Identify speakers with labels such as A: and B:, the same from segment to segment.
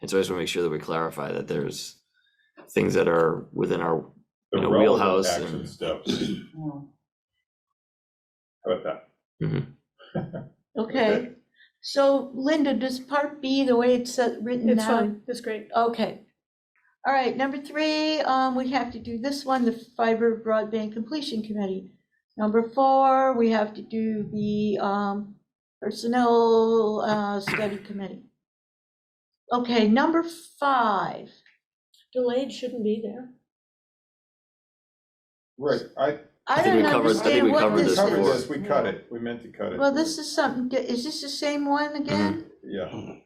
A: And so I just want to make sure that we clarify that there's things that are within our,
B: The
A: you know,
B: relevant
A: wheelhouse
B: Action
A: and-
B: steps, how about that?
C: Okay, so Linda, does part B, the way it's uh, written
D: It's
C: now?
D: fine, it's great.
C: Okay. All right, number three, um, we have to do this one, the fiber broadband completion committee. Number four, we have to do the, um, personnel, uh, study committee. Okay, number five,
D: Delayed shouldn't be there.
B: Right, I,
C: I
A: think we
C: don't
A: covered- I think
C: understand
A: we
C: what
A: covered
B: we
C: this
B: covered
A: before.
B: this,
C: is.
B: we cut it, we meant to cut it.
C: Well, this is something, di- is this the same one again?
B: Yeah,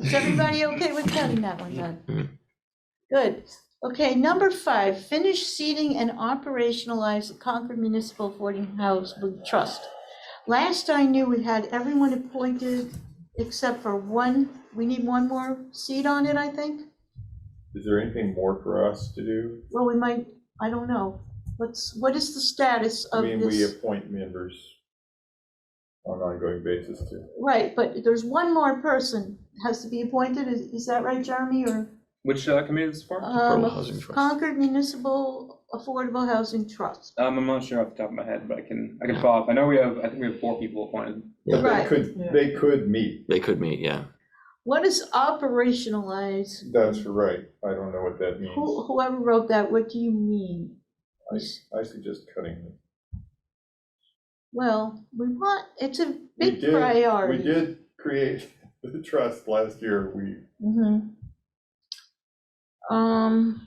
C: Is everybody okay with cutting that one then?
A: Mhm.
C: Good. Okay, number five, finish seating and operationalize the Concord Municipal Boarding House with Trust. Last I knew, we had everyone appointed except for one, we need one more seat on it, I think?
B: is there anything more for us to do?
C: Well, we might, I don't know. What's, what is the status
B: I
C: of
B: mean, we
C: this?
B: appoint members on an ongoing basis too.
C: Right, but there's one more person has to be appointed, is, is that right, Jeremy, or?
E: Which uh, committee is this for? Um,
C: Um,
A: Affordable Housing Trust.
C: Concord Municipal Affordable Housing Trust.
E: I'm not sure off the top of my head, but I can, I can follow up. I know we have, I think we have four people appointed.
A: Yeah.
B: But they
C: Right.
B: could, they could meet,
A: they could meet, yeah.
C: What is operationalize?
B: that's right, I don't know what that means.
C: Who- Whoever wrote that, what do you mean?
B: I, I suggest cutting it.
C: Well, we want, it's a
B: We
C: big
B: did-
C: priority.
B: We did create the trust last year, we,
C: Mhm. Um,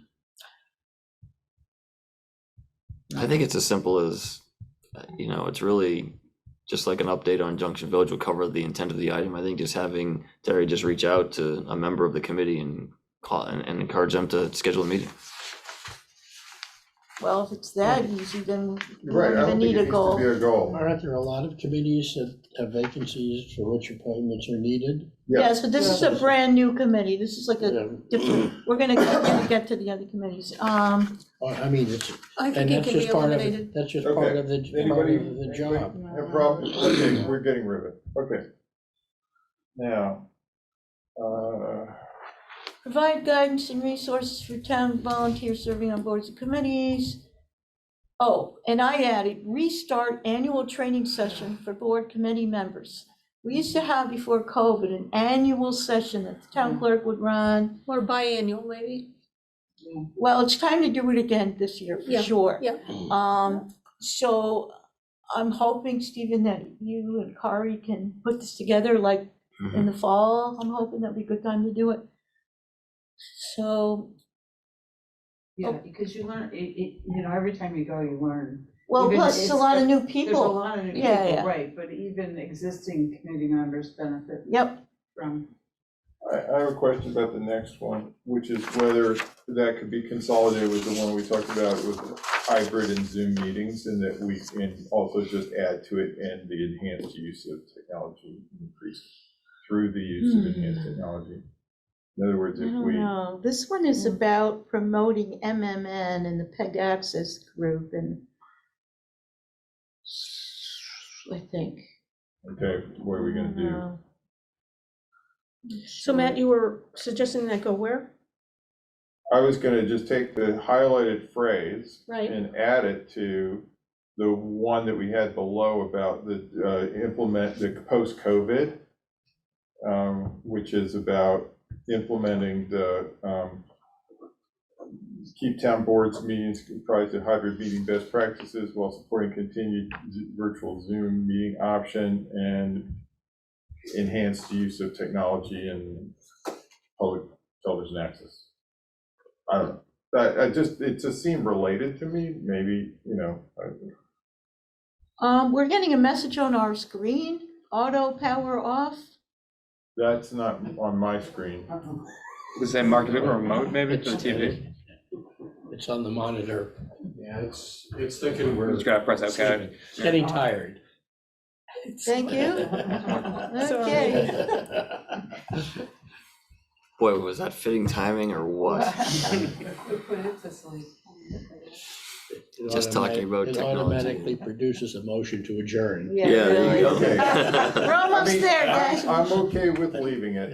A: I think it's as simple as, uh, you know, it's really just like an update on Junction Village will cover the intent of the item. I think just having Terry just reach out to a member of the committee and call and and encourage them to schedule a meeting.
C: well, if it's that easy, then we
B: right, I
C: don't
B: don't
C: even
B: think
C: need
B: it
C: a
B: needs to
C: goal.
B: be a goal.
F: Aren't there a lot of committees that have vacancies for which appointments are needed?
C: Yes, but this is a brand-new committee. This is like a
F: Um,
C: different, we're gonna we're gonna get to the other committees. Um,
F: or, I mean, it's,
D: I think
F: and
D: it
F: that's
D: can be
F: just part of,
D: eliminated.
F: that's just
B: Okay.
F: part of the, part
B: Anybody-
F: of the job.
B: No problem, okay, we're getting rid of it, okay. Now, uh,
C: Provide guidance and resources for town volunteers serving on boards and committees. Oh, and I added, restart annual training session for board committee members. We used to have before COVID an annual session that the
D: Mm.
C: town clerk would run.
D: Or biannual, maybe.
C: Well, it's time to do it again this year, for
D: Yeah,
C: sure.
D: yeah.
C: Um, so I'm hoping, Stephen, that you and Kari can put this together like
D: Mm-hmm.
C: in the fall. I'm hoping that'd be a good time to do it. So,
G: Yeah, Oh, because you learn, it, it, you know, every time you go, you learn.
C: well,
G: Even
C: plus it's a
G: it's-
C: lot of new
G: There's a
C: people.
G: lot of new
C: Yeah,
G: people,
C: yeah.
G: right, but even existing committee members benefit
C: Yep,
G: from.
B: I, I have a question about the next one, which is whether that could be consolidated with the one we talked about with hybrid and Zoom meetings, and that we can also just add to it and the enhanced use of technology increase through the use of enhanced technology. In other words,
C: Hmm. I
B: if
C: don't
B: we,
C: know. This one is about promoting MMN and the PEG Access Group and I think.
B: okay, what are we gonna do?
C: Uh,
D: So Matt, you were suggesting that go where?
B: I was gonna just take the highlighted phrase
D: Right.
B: and add it to the one that we had below about the, uh, implement the post-COVID, um, which is about implementing the, um, keep town boards meetings comprised of hybrid meeting best practices while supporting continued z- virtual Zoom meeting option and enhanced use of technology and public television access. I don't know. I, I just, it just seemed related to me, maybe, you know, I-
C: Um, we're getting a message on our screen, auto power off.
B: that's not on my screen.
G: Uh-oh.
E: Does it say market or remote maybe for the TV?
F: It's on the monitor.
H: Yeah, it's, it's thinking
E: I'm
H: we're.
E: just gonna press okay.
F: It's Getting tired.
C: Thank you. Okay.
A: Boy, was that fitting timing or what?
G: We Put it to sleep.
F: It
A: Just talking about
F: automatic-
A: technology.
F: It automatically produces a motion to adjourn.
A: Yeah, there you go. uh,
C: really.
B: Okay.
C: We're almost there, guys.
B: I'm okay with leaving it.